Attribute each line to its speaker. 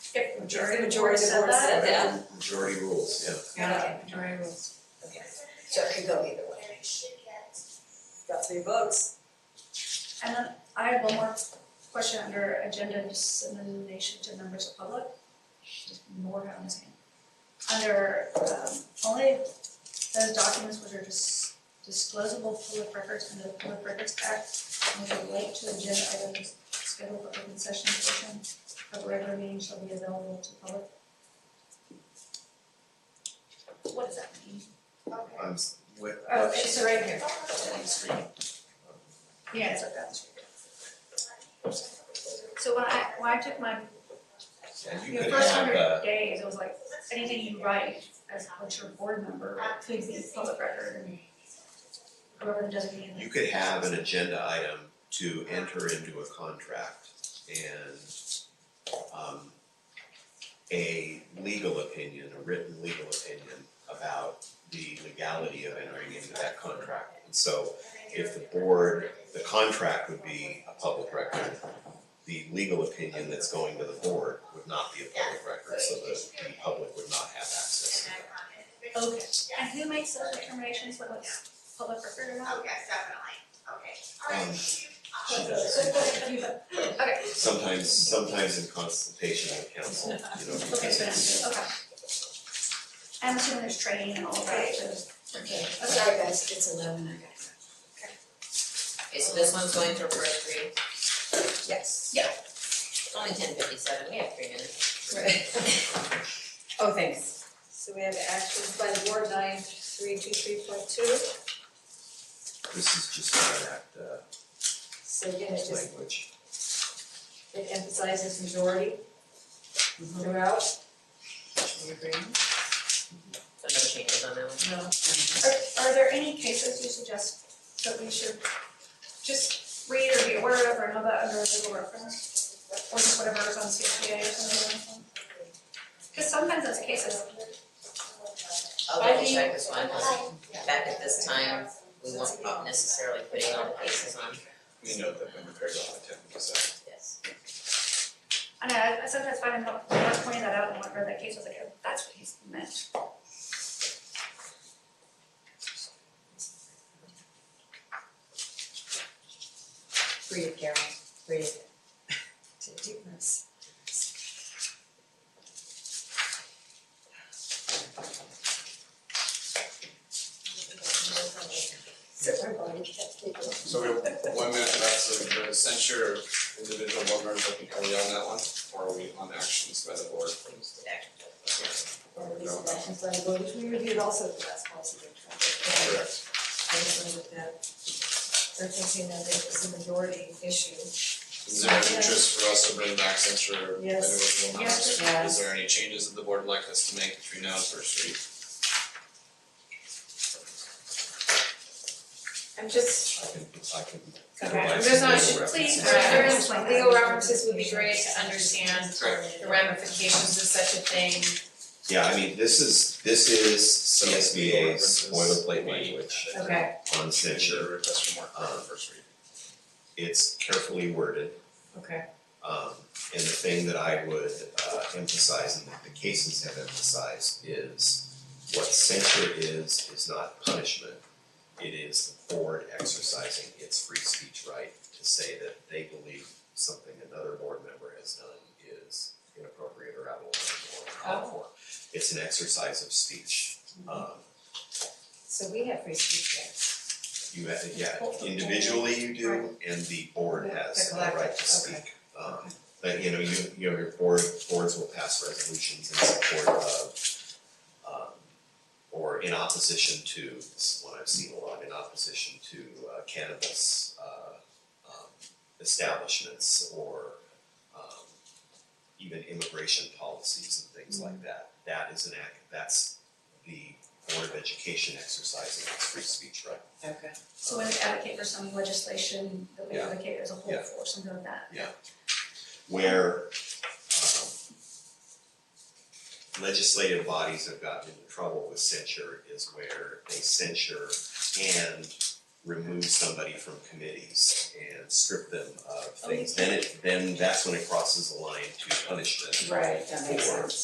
Speaker 1: majority,
Speaker 2: majority of the board said that.
Speaker 3: majority rules, yeah.
Speaker 1: Yeah,
Speaker 2: Okay, majority rules. Okay,
Speaker 1: so it could go either way.
Speaker 2: got three votes.
Speaker 4: And then I have one more question under agenda dissemination to members of public. Just more on this hand. Under um only those documents which are dis- disclosable public records under the Public Records Act and which relate to agenda items scheduled for open session portion of a regular meeting shall be available to public. What does that mean?
Speaker 3: I'm s- wait,
Speaker 4: Oh, it's right here.
Speaker 3: on the screen.
Speaker 4: Yeah, it's like that. So when I, when I took my
Speaker 3: And you
Speaker 4: Your
Speaker 3: could
Speaker 4: first
Speaker 3: have,
Speaker 4: hundred
Speaker 3: uh,
Speaker 4: days, it was like, anything you write as what your board member could be public record and whoever the designated.
Speaker 3: you could have an agenda item to enter into a contract and um a legal opinion, a written legal opinion about the legality of entering into that contract. And so if the board, the contract would be a public record, the legal opinion that's going to the board would not be a public record, so the the public would not have access to that.
Speaker 4: Okay, and who makes those determinations, whether it's public record or not?
Speaker 5: Yes, definitely, okay.
Speaker 3: Um, she
Speaker 4: So,
Speaker 3: does.
Speaker 4: but you- but- okay,
Speaker 3: Sometimes, sometimes in consultation with council, you know,
Speaker 4: okay,
Speaker 3: because
Speaker 4: so
Speaker 3: it's,
Speaker 4: that's- okay. I'm assuming there's training and all of that, so,
Speaker 1: Okay, I'm sorry guys, it's eleven, I gotta go.
Speaker 6: Okay, so this one's going to for three,
Speaker 1: Yes.
Speaker 6: it's only ten fifty-seven, we have three minutes.
Speaker 1: Oh, thanks.
Speaker 2: So we have actions by the board nine three two three point two.
Speaker 3: this is just not that uh
Speaker 2: So again, it just
Speaker 3: language.
Speaker 2: it emphasizes majority throughout.
Speaker 6: You agree? So no changes on that one.
Speaker 2: No.
Speaker 4: are, are there any cases you suggest that we should just read or be aware of or know about under legal reference? Or just whatever's on CPA or something like that? Cause sometimes those cases,
Speaker 6: I'll
Speaker 2: I
Speaker 6: double
Speaker 2: think-
Speaker 6: check this one, back at this time, we won't be necessarily putting all the cases on,
Speaker 7: We know that when prepared on the tenth, so.
Speaker 6: yes.
Speaker 4: I know, I I sometimes find I'm not, I'm not pointing that out in whatever that case, I was like, oh, that's what he's meant.
Speaker 1: Breathe, Carol, breathe. Take deep breaths. So our body kept taking.
Speaker 7: So we have one minute left, so the censure of individual board members, I think, are we on that one? Or are we on actions by the board?
Speaker 2: Or these actions by the board, which we reviewed also at the last policy workshop.
Speaker 7: Correct.
Speaker 2: I was wondering if that, they're thinking that it was a majority issue.
Speaker 7: Is there an interest for us to bring back censure of
Speaker 2: Yes.
Speaker 7: individual members?
Speaker 1: Yeah.
Speaker 7: Is there any changes that the board would like us to make between now and first read?
Speaker 2: I'm just,
Speaker 3: I can, I can.
Speaker 2: Okay.
Speaker 3: utilize
Speaker 2: There's
Speaker 3: some
Speaker 2: not-
Speaker 3: legal
Speaker 2: please,
Speaker 3: references.
Speaker 2: there
Speaker 4: is-
Speaker 2: legal references would be great to understand
Speaker 7: Correct.
Speaker 2: the ramifications of such a thing.
Speaker 3: Yeah, I mean, this is, this is CSBA's
Speaker 7: So, references.
Speaker 3: boilerplate language
Speaker 2: Okay.
Speaker 3: on censure.
Speaker 7: Request for more clarity on first read.
Speaker 3: It's carefully worded.
Speaker 2: Okay.
Speaker 3: Um, and the thing that I would uh, emphasize and that the cases have emphasized is what censure is, is not punishment. It is the board exercising its free speech right to say that they believe something another board member has done is inappropriate or out of line or uncalled for. It's an exercise of speech. Um,
Speaker 2: So we have free speech rights.
Speaker 3: you have, yeah, individually you do, and the board has the right to speak. Um, but you know, you, you know, your board, boards will pass resolutions in support of, um, or in opposition to, this is one I've seen a lot, in opposition to uh, cannabis, uh, um, establishments or, um, even immigration policies and things like that. That is an act, that's the Board of Education exercising its free speech right.
Speaker 1: Okay.
Speaker 4: So when we advocate for some legislation that we
Speaker 3: Yeah.
Speaker 4: advocate as a whole
Speaker 3: Yeah.
Speaker 4: for, something like that.
Speaker 3: where um, legislative bodies have gotten into trouble with censure is where they censure and remove somebody from committees and strip them of things, then it, then that's when it crosses the line to punishment
Speaker 6: Right, that
Speaker 3: for